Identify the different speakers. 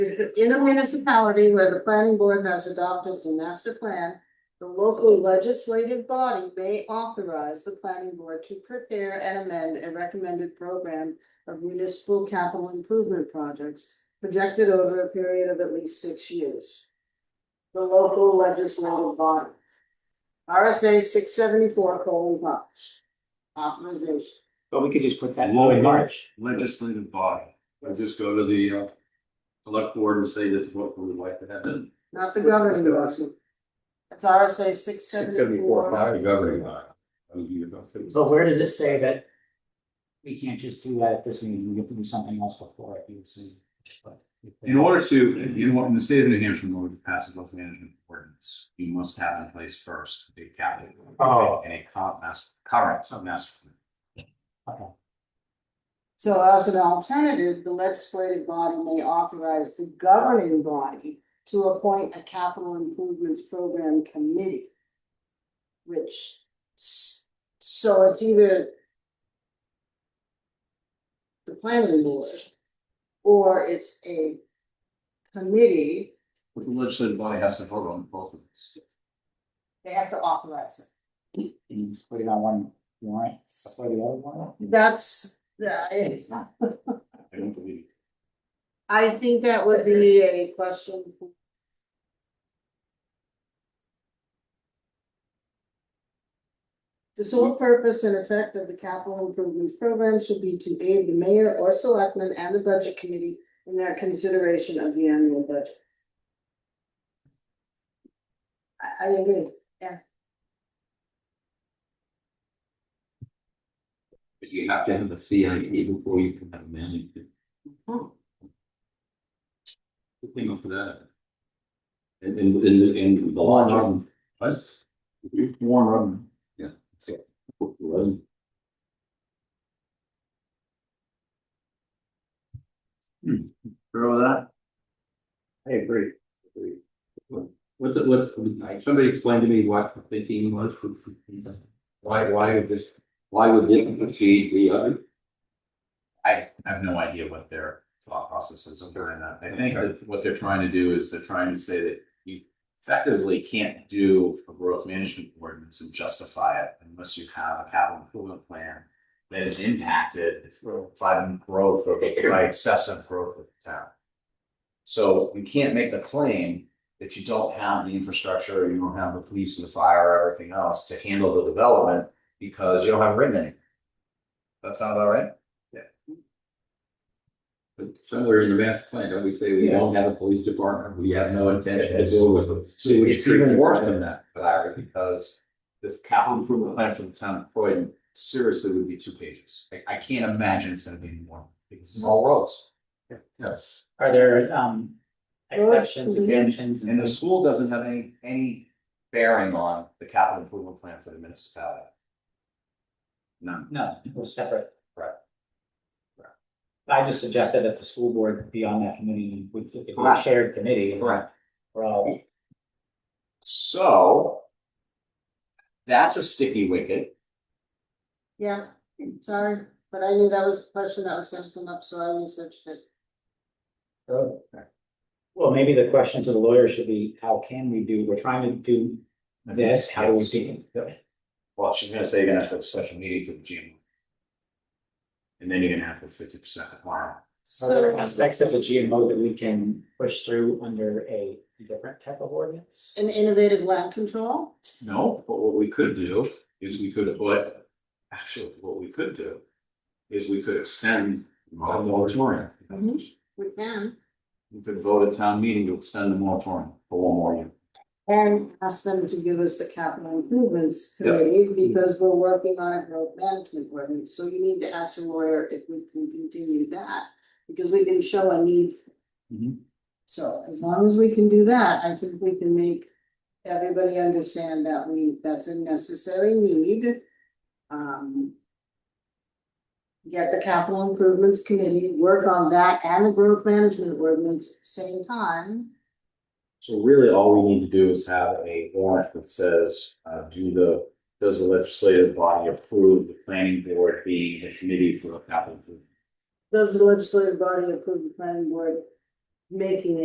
Speaker 1: In a municipality where the planning board has adopted the master plan, the local legislative body may authorize the planning board to prepare and amend a recommended program of municipal capital improvement projects projected over a period of at least six years. The local legislative body. RSA six seventy-four colon five. Authorization.
Speaker 2: But we could just put that in
Speaker 3: Lower.
Speaker 2: March.
Speaker 3: legislative body, and just go to the uh select board and say this is what we would like to happen.
Speaker 1: Not the governing body. It's RSA six seventy-four.
Speaker 3: Not the governing body. I mean, you know, it's-
Speaker 2: But where does it say that? We can't just do that at this meeting, we have to do something else before it, you see. but if they-
Speaker 4: In order to, in what, in the state of New Hampshire, in order to pass a wealth management ordinance, you must have in place first a capital.
Speaker 2: Oh.
Speaker 4: And a co- master, current master plan.
Speaker 2: Okay.
Speaker 1: So as an alternative, the legislative body may authorize the governing body to appoint a capital improvements program committee. Which, s- so it's either. The planning board. Or it's a committee,
Speaker 4: But the legislative body has to vote on both of these.
Speaker 1: they have to authorize it.
Speaker 2: And you put it on one warrant, before the other one?
Speaker 1: That's, uh, I
Speaker 4: I don't believe.
Speaker 1: I think that would be a question. for The sole purpose and effect of the capital improvement program should be to aid the mayor or selectmen and the budget committee in their consideration of the annual budget. I, I agree,
Speaker 5: But you have to have a CIP before you can have management.
Speaker 4: Who came up with that?
Speaker 5: And, and, and, and the logic.
Speaker 4: What? Warren Rubin. Remember Hmm. that?
Speaker 3: I agree.
Speaker 5: What's it, what, somebody explained to me what the thinking was. Why, why would this, why would this proceed the other?
Speaker 4: I have no idea what their thought process is of doing that. I think that what they're trying to do is they're trying to say that you effectively can't do a growth management ordinance and justify it unless you have a capital improvement plan that is impacted by the growth of, by excessive growth of the town. So you can't make the claim that you don't have the infrastructure, you don't have the police and the fire, or everything else to handle the development because you don't have written any. That sound about right?
Speaker 5: But somewhere in the master plan, don't we say we don't have a police department, we have no intention to deal with it?
Speaker 4: So it's even worse than that, Larry, because this capital improvement plan for the town of Croydon seriously would be two pages. Like, I can't imagine it's gonna be more, because it's all roads. Yes.
Speaker 2: Are there, um,
Speaker 1: Well,
Speaker 2: exceptions,
Speaker 1: we-
Speaker 2: exemptions?
Speaker 4: And the school doesn't have any, any bearing on the capital improvement plan for the municipality. None.
Speaker 2: No, it was separate.
Speaker 4: Right.
Speaker 2: Right. I just suggested that the school board be on that committee, we, if we're a
Speaker 4: Correct.
Speaker 2: shared committee. We're all.
Speaker 4: So that's a sticky wicket.
Speaker 1: yeah, sorry, but I knew that was a question that was gonna come up, so I researched it.
Speaker 2: Well, maybe the question to the lawyer should be, how can we do, we're trying to do this, how do we do? it?
Speaker 4: Well, she's gonna say you're gonna have to have a special meeting for the GM. And then you're gonna have the fifty percent tomorrow.
Speaker 2: Are there
Speaker 1: So.
Speaker 2: aspects of the GMO that we can push through under a different type of ordinance?
Speaker 1: An innovative land control,
Speaker 4: No, but what we could do is we could put, actually, what we could do is we could extend the moratorium.
Speaker 1: Mhm. we can,
Speaker 4: We could vote at town meeting to extend the moratorium for one more year.
Speaker 1: and ask them to give us the capital improvements committee, because we're working on a growth management ordinance, so you need to ask the lawyer if we can continue that. Because we can show a need.
Speaker 4: Mhm.
Speaker 1: So as long as we can do that, I think we can make everybody understand that we, that's a necessary need. Um. Get the capital improvements committee, work on that and the growth management ordinance same time.
Speaker 4: So really, all we need to do is have a warrant that says, uh, do the, does the legislative body approve the planning board being the committee for the capital? improvement?
Speaker 1: Does the legislative body approve the planning board making